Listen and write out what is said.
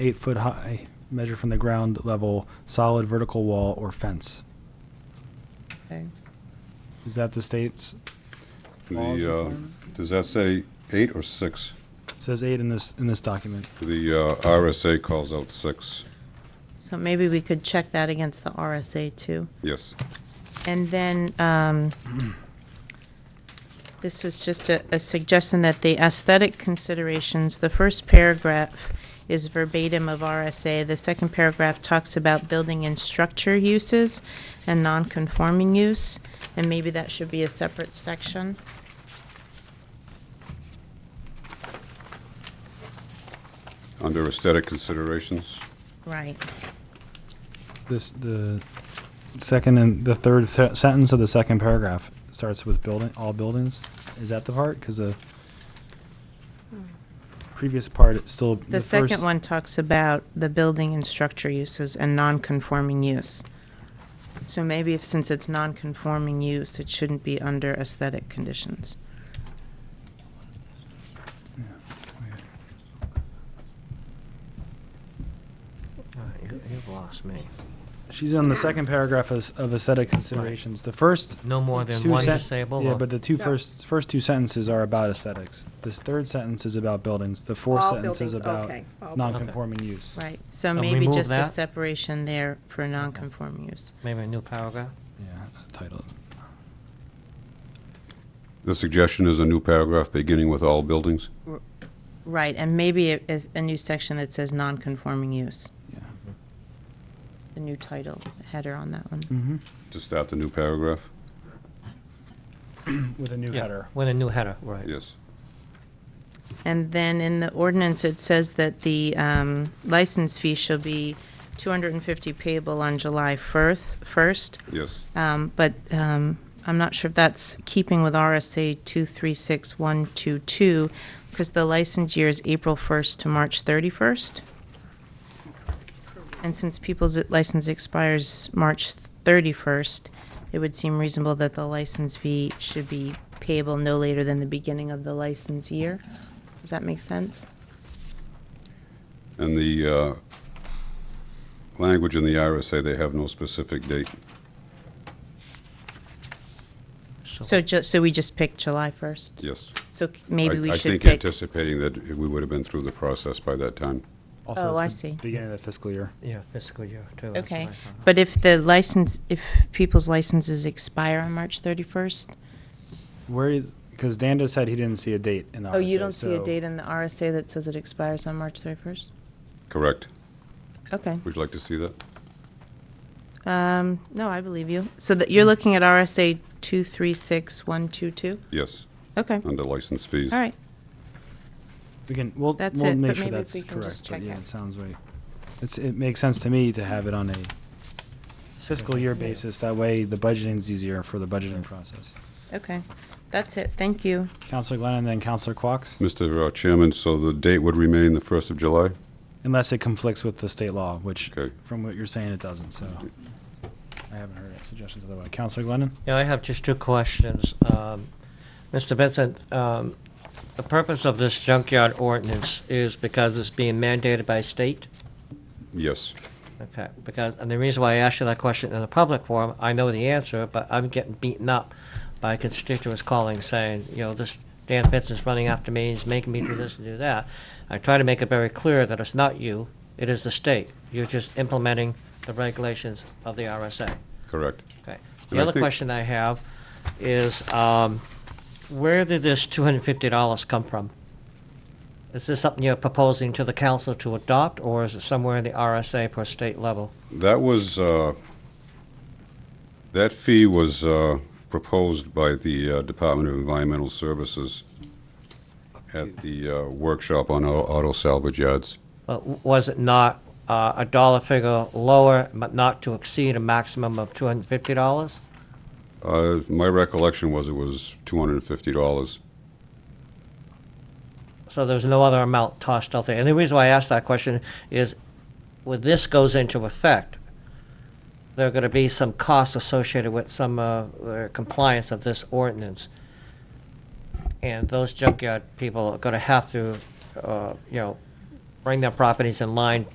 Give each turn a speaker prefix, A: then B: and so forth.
A: eight foot high, measured from the ground level, solid vertical wall or fence.
B: Okay.
A: Is that the state's? Laws
C: The, uh,
A: requirement?
C: does that say eight or six?
A: Says eight in this, in this document.
C: The uh, RSA calls out six,
B: So maybe we could check that against the RSA too.
C: yes.
B: And then, um, this was just a, a suggestion that the aesthetic considerations, the first paragraph is verbatim of RSA. The second paragraph talks about building and structure uses and non-conforming use, and maybe that should be a separate section.
C: Under aesthetic considerations,
B: Right.
A: This, the second and, the third se- sentence of the second paragraph starts with building, all buildings. Is that the part? Because the previous part, it's still.
B: The
A: first-
B: second one talks about the building and structure uses and non-conforming use. So maybe if, since it's non-conforming use, it shouldn't be under aesthetic conditions.
D: All right, you- You've lost me.
A: She's on the second paragraph of of aesthetic considerations. The first
D: No more than
A: two
D: one
A: sen-
D: disabled?
A: Yeah,
D: or-
A: but the two first, first two sentences are about aesthetics. This third sentence is about buildings. The fourth
E: All
A: sentence is
E: buildings,
A: about
E: okay. All buildings.
A: non-conforming use.
B: Right, so
D: So
B: maybe
D: remove
B: just a
D: that?
B: separation there for non-conforming use.
D: Maybe a new paragraph?
A: Yeah, title.
C: the suggestion is a new paragraph beginning with all buildings?
B: Right, and maybe it is a new section that says non-conforming use,
A: Yeah.
B: a new title header on that one.
A: Mm-hmm.
C: To start the new paragraph?
A: With a new
D: Yeah,
A: header.
D: With a new header, right.
C: Yes.
B: And then in the ordinance, it says that the um, license fee shall be 250 payable on July 1st, 1st.
C: Yes.
B: Um, But um, I'm not sure if that's keeping with RSA 236122, because the license year is April 1st to March 31st. And since people's license expires March 31st, it would seem reasonable that the license fee should be payable no later than the beginning of the license year. Does that make sense?
C: And the uh, language in the RSA, they have no specific date.
B: So just, so we just pick July 1st?
C: Yes.
B: So c- maybe
C: I-
B: we
C: I
B: should
C: think
B: pick,
C: anticipating that we would have been through the process by that time.
A: Also,
B: Oh,
A: it's
B: I
A: the
B: see.
A: Beginning of the fiscal year.
D: Yeah, fiscal year, too. that's
B: okay.
D: what I thought.
B: But if the license, if people's licenses expire on March 31st?
A: Where is, because Danda said he didn't see a date in the RSA.
B: Oh, you don't see a
A: so-
B: date in the RSA that says it expires on March 31st?
C: Correct.
B: Okay.
C: Would you like to see that?
B: Um, no, I believe you. So that, you're looking at RSA 236122?
C: Yes,
B: Okay, all
C: under license fees.
B: right.
A: We can, we'll,
B: That's
A: we'll
B: it,
A: make
B: but
A: sure
B: maybe if
A: that's
B: we can just
A: correct, but
B: check
A: yeah,
B: it.
A: it sounds right. It's, it makes sense to me to have it on a fiscal year basis. That way, the budgeting's easier for the budgeting process.
B: Okay, that's it. Thank you.
A: Counselor Glenn and then Counselor Quox?
C: Mr. uh, Chairman, so the date would remain the 1st of July?
A: Unless it conflicts with the state law, which,
C: Okay.
A: from what you're saying, it doesn't, so. I haven't heard suggestions otherwise. Counselor Glennon?
D: Yeah, I have just two questions. Um, Mr. Vincent, um, the purpose of this junkyard ordinance is because it's being mandated by state?
C: Yes.
D: Okay, because, and the reason why I asked you that question in the public forum, I know the answer, but I'm getting beaten up by constituents calling saying, you know, this Dan Fitz is running after me, he's making me do this and do that. I try to make it very clear that it's not you, it is the state. You're just implementing the regulations of the RSA.
C: Correct.
D: Okay.
C: And
D: The
C: I
D: other
C: think-
D: question I have is, um, where did this two hundred and fifty dollars come from? Is this something you're proposing to the council to adopt, or is it somewhere in the RSA per state level?
C: That was, uh, that fee was uh, proposed by the uh, Department of Environmental Services at the uh, workshop on au- auto salvage yards.
D: Uh, w- Was it not uh, a dollar figure lower, but not to exceed a maximum of two hundred and fifty dollars?
C: Uh, My recollection was it was $250.
D: So there's no other amount tossed out there. And the reason why I asked that question is, when this goes into effect, there are going to be some costs associated with some uh, the compliance of this ordinance. And those junkyard people are going to have to, uh, you know, bring their properties in line